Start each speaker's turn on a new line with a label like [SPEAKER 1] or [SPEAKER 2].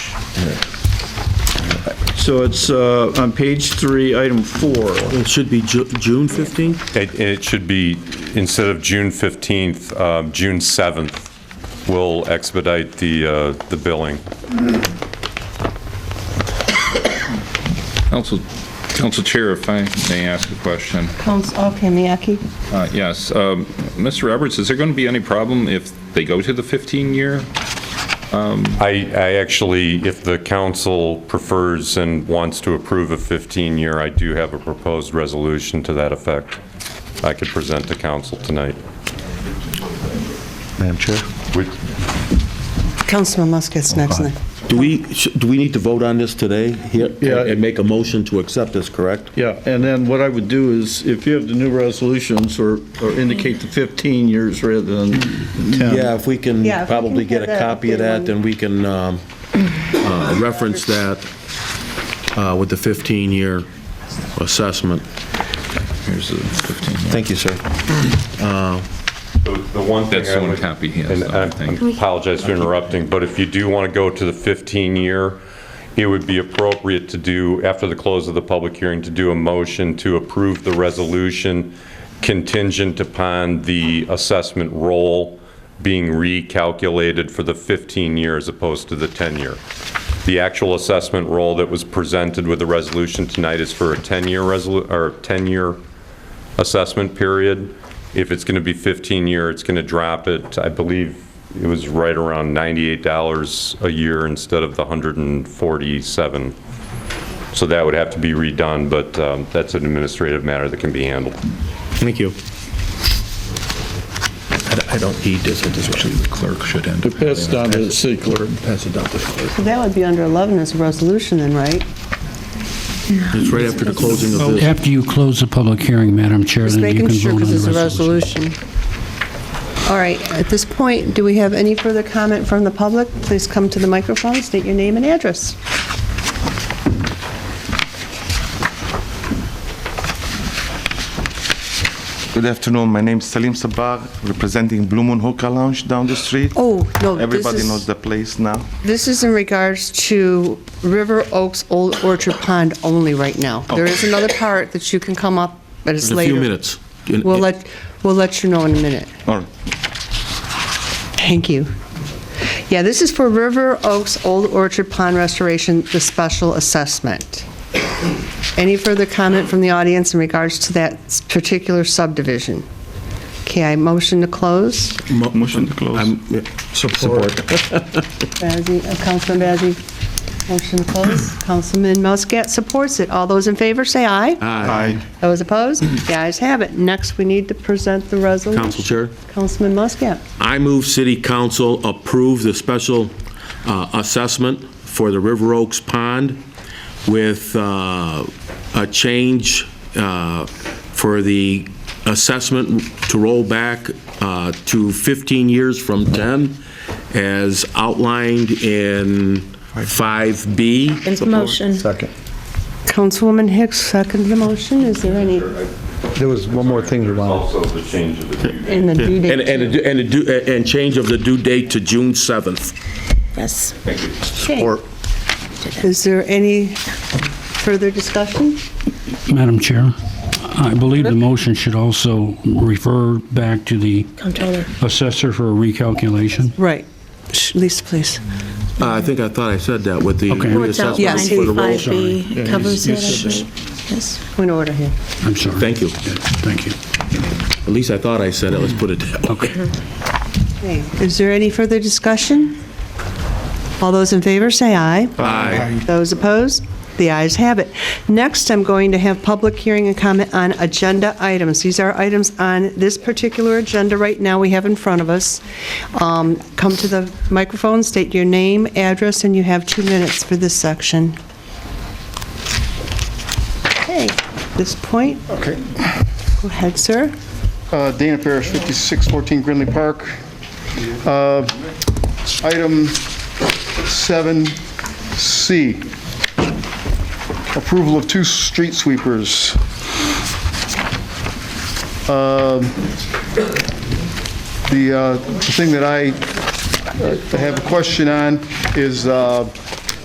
[SPEAKER 1] So it's uh, on page three, item four.
[SPEAKER 2] It should be Ju- June 15?
[SPEAKER 3] It, it should be, instead of June 15th, um, June 7th, we'll expedite the, uh, the billing.
[SPEAKER 4] Council, Council Chair, if I may ask a question.
[SPEAKER 5] Council, okay, Miyaki?
[SPEAKER 4] Uh, Yes, um, Mr. Roberts, is there going to be any problem if they go to the 15-year?
[SPEAKER 3] I, I actually, if the council prefers and wants to approve a 15-year, I do have a proposed resolution to that effect. I could present to council tonight.
[SPEAKER 6] Madam Chair?
[SPEAKER 3] Would-
[SPEAKER 5] Councilman Musket's next, Nick.
[SPEAKER 6] Do we, sh- do we need to vote on this today? here,
[SPEAKER 1] Yeah.
[SPEAKER 6] And make a motion to accept this, correct?
[SPEAKER 1] Yeah, and then what I would do is, if you have the new resolutions, or or indicate the 15 years rather than 10.
[SPEAKER 6] Yeah, if we can
[SPEAKER 5] Yeah, if we
[SPEAKER 6] probably
[SPEAKER 5] can
[SPEAKER 6] get a
[SPEAKER 5] get a
[SPEAKER 6] copy of
[SPEAKER 5] good
[SPEAKER 6] that,
[SPEAKER 5] one.
[SPEAKER 6] then we can um, uh, reference that uh, with the 15-year assessment.
[SPEAKER 4] Here's the 15-year.
[SPEAKER 6] Thank you, sir.
[SPEAKER 3] The the one thing
[SPEAKER 4] That's
[SPEAKER 3] I
[SPEAKER 4] the one
[SPEAKER 3] would-
[SPEAKER 4] copy he has,
[SPEAKER 3] And
[SPEAKER 4] though, I
[SPEAKER 3] I
[SPEAKER 4] think.
[SPEAKER 3] I apologize for interrupting, but if you do want to go to the 15-year, it would be appropriate to do, after the close of the public hearing, to do a motion to approve the resolution contingent upon the assessment roll being recalculated for the 15-year as opposed to the 10-year. The actual assessment roll that was presented with the resolution tonight is for a 10-year resolu, or 10-year assessment period. If it's going to be 15-year, it's going to drop it, I believe it was right around $98 a year instead of the 147. So that would have to be redone, but um, that's an administrative matter that can be handled.
[SPEAKER 6] Thank you. I don't- I don't need this at this point.
[SPEAKER 4] The clerk should end. up
[SPEAKER 1] Pass it down to the city clerk.
[SPEAKER 6] Pass it down to the clerk.
[SPEAKER 5] That would be under 11 as a resolution then, right?
[SPEAKER 6] It's right after the closing of
[SPEAKER 7] Well,
[SPEAKER 6] this.
[SPEAKER 7] After you close the public hearing, Madam Chair,
[SPEAKER 5] Just
[SPEAKER 7] then you
[SPEAKER 5] making
[SPEAKER 7] can
[SPEAKER 5] sure,
[SPEAKER 7] vote on
[SPEAKER 5] because it's
[SPEAKER 7] the
[SPEAKER 5] a
[SPEAKER 7] resolution.
[SPEAKER 5] resolution. All right, at this point, do we have any further comment from the public? Please come to the microphone, state your name and address.
[SPEAKER 8] Good afternoon. My name is Salim Sabah, representing Blue Moon Hookah Lounge down the street.
[SPEAKER 5] Oh, no, this
[SPEAKER 8] Everybody knows
[SPEAKER 5] is,
[SPEAKER 8] the place now.
[SPEAKER 5] this is in regards to River Oaks Old Orchard Pond only right now. There is another part that you can come up, but it's
[SPEAKER 6] In a
[SPEAKER 5] later.
[SPEAKER 6] few minutes. In-
[SPEAKER 5] We'll let, we'll let you know in a minute.
[SPEAKER 8] All right.
[SPEAKER 5] Thank you. Yeah, this is for River Oaks Old Orchard Pond Restoration, the special assessment. Any further comment from the audience in regards to that s- particular subdivision? Okay, I motion to close.
[SPEAKER 6] Mo-
[SPEAKER 8] Motion to close.
[SPEAKER 6] I'm- yeah, Support.
[SPEAKER 5] Bazey, uh, Councilman Bazey, motion to close. Councilman Muscat supports it. All those in favor, say aye.
[SPEAKER 8] Aye.
[SPEAKER 5] Those opposed? The ayes have it. Next, we need to present the resolution.
[SPEAKER 6] Council Chair?
[SPEAKER 5] Councilman Muscat.
[SPEAKER 6] I move City Council approve the special uh, assessment for the River Oaks Pond with uh, a change uh, for the assessment to roll back uh, to 15 years from 10, as outlined in 5B.
[SPEAKER 9] Motion.
[SPEAKER 5] Councilwoman Hicks, second the motion. Is there any?
[SPEAKER 10] There was one more thing you wanted.
[SPEAKER 3] Also, the change of the due
[SPEAKER 5] In the due date.
[SPEAKER 6] And, and, a- and, a due- and change of the due date to June 7th.
[SPEAKER 9] Yes.
[SPEAKER 6] Or uh,
[SPEAKER 5] Is there any further discussion?
[SPEAKER 7] Madam Chair, I believe the motion should also refer back to the
[SPEAKER 9] Controller.
[SPEAKER 7] assessor for a recalculation.
[SPEAKER 5] Right. Lisa, please.
[SPEAKER 6] Uh, I think I thought I said that with the
[SPEAKER 7] Okay.
[SPEAKER 9] What's
[SPEAKER 6] reassessment
[SPEAKER 9] out
[SPEAKER 6] for
[SPEAKER 5] Yes.
[SPEAKER 6] the roll.
[SPEAKER 9] 95B covers it, I believe. Yes.
[SPEAKER 5] Point of order here.
[SPEAKER 7] I'm sorry.
[SPEAKER 6] Thank you.
[SPEAKER 7] Yeah, Thank you.
[SPEAKER 6] At least I thought I said it, let's put it that way.
[SPEAKER 7] Okay.
[SPEAKER 5] Okay. Is there any further discussion? All those in favor, say aye.
[SPEAKER 6] Aye.
[SPEAKER 5] Those opposed? The ayes have it. Next, I'm going to have public hearing and comment on agenda items. These are items on this particular agenda right now we have in front of us. Um, Come to the microphone, state your name, address, and you have two minutes for this section. Okay, at this point,
[SPEAKER 11] Okay.
[SPEAKER 5] go ahead, sir.
[SPEAKER 11] Uh, Dana Parrish, 5614 Grinley Park. Uh, Item 7C, approval of two street sweepers. Um, The uh, the thing that I uh, have a question on is uh,